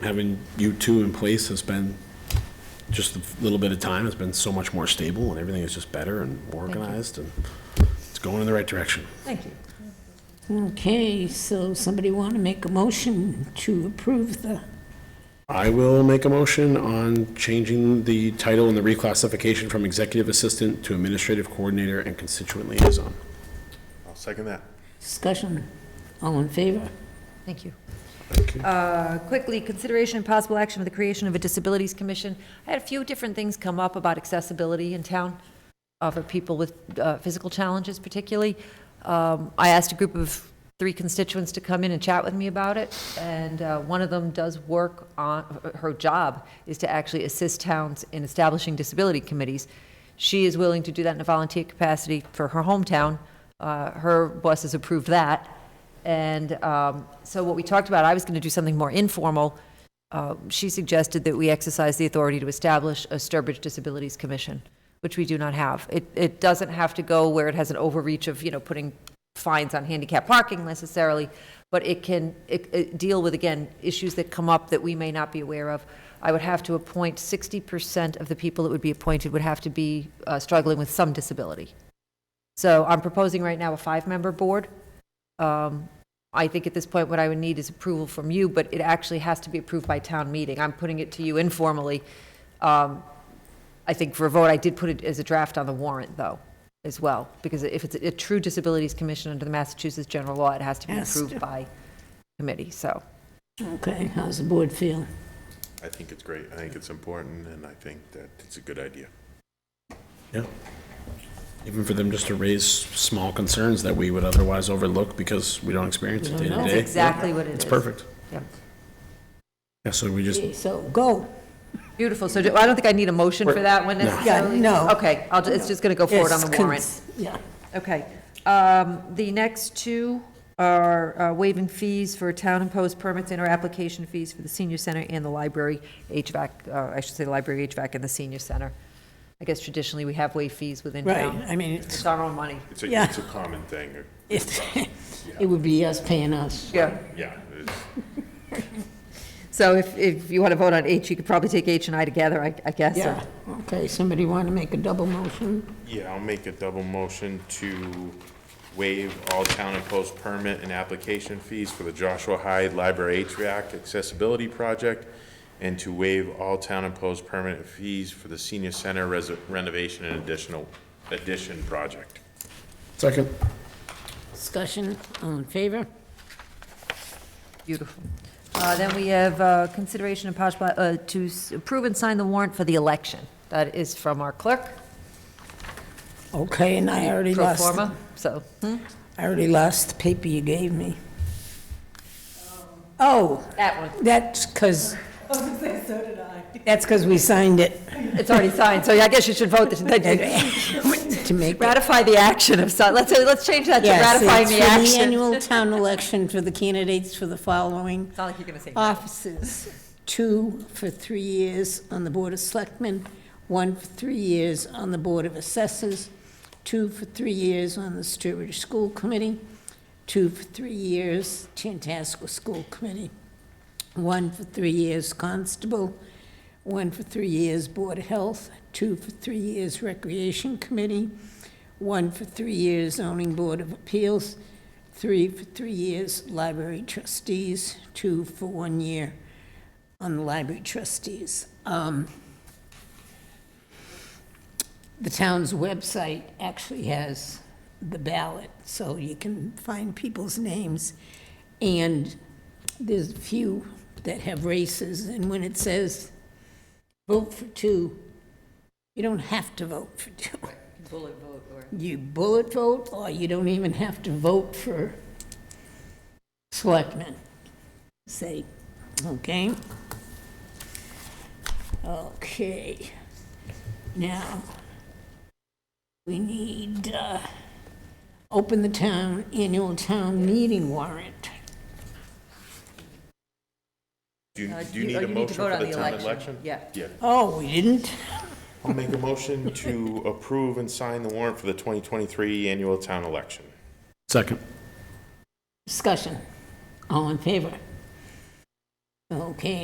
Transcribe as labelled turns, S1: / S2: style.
S1: having you two in place has been, just a little bit of time, has been so much more stable, and everything is just better and more
S2: you.
S1: organized, and it's going in the right direction.
S2: Thank you.
S3: Okay, so somebody want to make a motion to approve the,
S1: I will make a motion on changing the title and the reclassification from executive assistant to administrative coordinator and constituent liaison.
S4: I'll second that.
S3: discussion? All in favor?
S2: Thank you.
S1: Thank you.
S2: Uh, Quickly, consideration and possible action for the creation of a disabilities commission. I had a few different things come up about accessibility in town uh, for people with uh, physical challenges particularly. Um, I asked a group of three constituents to come in and chat with me about it, and uh, one of them does work on, her job is to actually assist towns in establishing disability committees. She is willing to do that in a volunteer capacity for her hometown. Uh, Her boss has approved that. And um, so what we talked about, I was going to do something more informal. Uh, She suggested that we exercise the authority to establish a Sturbridge Disabilities Commission, which we do not have. It, it doesn't have to go where it has an overreach of, you know, putting fines on handicap parking necessarily, but it can it- it deal with, again, issues that come up that we may not be aware of. I would have to appoint, 60% of the people that would be appointed would have to be uh, struggling with some disability. So I'm proposing right now a five-member board. Um, I think at this point, what I would need is approval from you, but it actually has to be approved by town meeting. I'm putting it to you informally. Um, I think for a vote, I did put it as a draft on the warrant, though, as well, because if it's a true disabilities commission under the Massachusetts general law, it has to be
S3: Has
S2: approved
S3: to.
S2: by committee, so.
S3: Okay, how's the board feel?
S4: I think it's great. I think it's important, and I think that it's a good idea.
S1: Yeah. Even for them just to raise small concerns that we would otherwise overlook because we don't experience it day to
S3: don't know.
S1: day.
S3: That's
S1: Yeah,
S2: exactly what it
S1: It's
S2: is.
S1: perfect.
S2: Yep.
S1: Yeah, so we just,
S3: Okay, So, go.
S2: Beautiful, so do- I don't think I need a motion for that one
S1: No. Yeah,
S2: necessarily?
S3: no.
S2: Okay, I'll, ju- it's just going to go forward on
S3: Yes,
S2: the
S3: cons-
S2: warrant.
S3: Yeah,
S2: Okay. Um, The next two are uh, waiving fees for town-imposed permits and/or application fees for the senior center and the library HVAC, uh, I should say, the library HVAC and the senior center. I guess traditionally, we have waived fees within
S3: right,
S2: town.
S3: I mean,
S2: It's
S3: it's,
S2: our own money.
S4: It's a,
S3: Yeah.
S4: it's a common thing.
S3: it's, it would be us paying us.
S2: Yeah.
S4: Yeah, it's-
S2: So if, if you want to vote on H, you could probably take H and I together, I I guess. or-
S3: Yeah, okay, somebody want to make a double motion?
S4: yeah, I'll make a double motion to waive all town imposed permit and application fees for the Joshua Hyde Library HVAC Accessibility Project, and to waive all town imposed permanent fees for the Senior Center res- renovation and additional, addition project.
S1: second.
S3: Discussion, all in favor?
S2: Beautiful. Uh, Then we have uh, consideration and possible, uh, to s- approve and sign the warrant for the election. That is from our clerk,
S3: Okay, and I already
S2: pro
S3: lost,
S2: forma, so. hmm?
S3: I already lost the paper you gave me. Oh,
S2: That one.
S3: that's because. so did I. That's because we signed it
S2: It's already signed, so I guess you should vote to
S3: to make it
S2: ratify the action of, si- let's, say- let's change that to
S3: Yes,
S2: ratifying the
S3: It's for the
S2: action.
S3: annual town election for the candidates for the following
S2: It's not like you're going to say.
S3: offices. Two for three years on the Board of Selectmen, one for three years on the Board of Assessors, two for three years on the Sturbridge School Committee, two for three years Tantasco School Committee, one for three years Constable, one for three years Board of Health, two for three years Recreation Committee, one for three years Zoning Board of Appeals, three for three years Library Trustees, two for one year on the Library Trustees. Um, The town's website actually has the ballot, so you can find people's names. And there's a few that have races, and when it says, vote for two, you don't have to vote for two.
S2: Bullet vote or.
S3: You bullet vote, or you don't even have to vote for selectmen, say, okay? Okay, now, we need, uh, open the town, annual town meeting warrant.
S4: Do you,
S2: Uh,
S4: do you need
S2: oh,
S4: a
S2: you need to
S4: motion
S2: vote
S4: for
S2: on
S4: the
S2: the
S4: town
S2: election.
S4: election?
S2: Yeah.
S4: Yeah.
S3: Oh, we didn't?
S4: I'll make a motion to approve and sign the warrant for the 2023 annual town election.
S1: Second.
S3: Discussion, all in favor? Okay,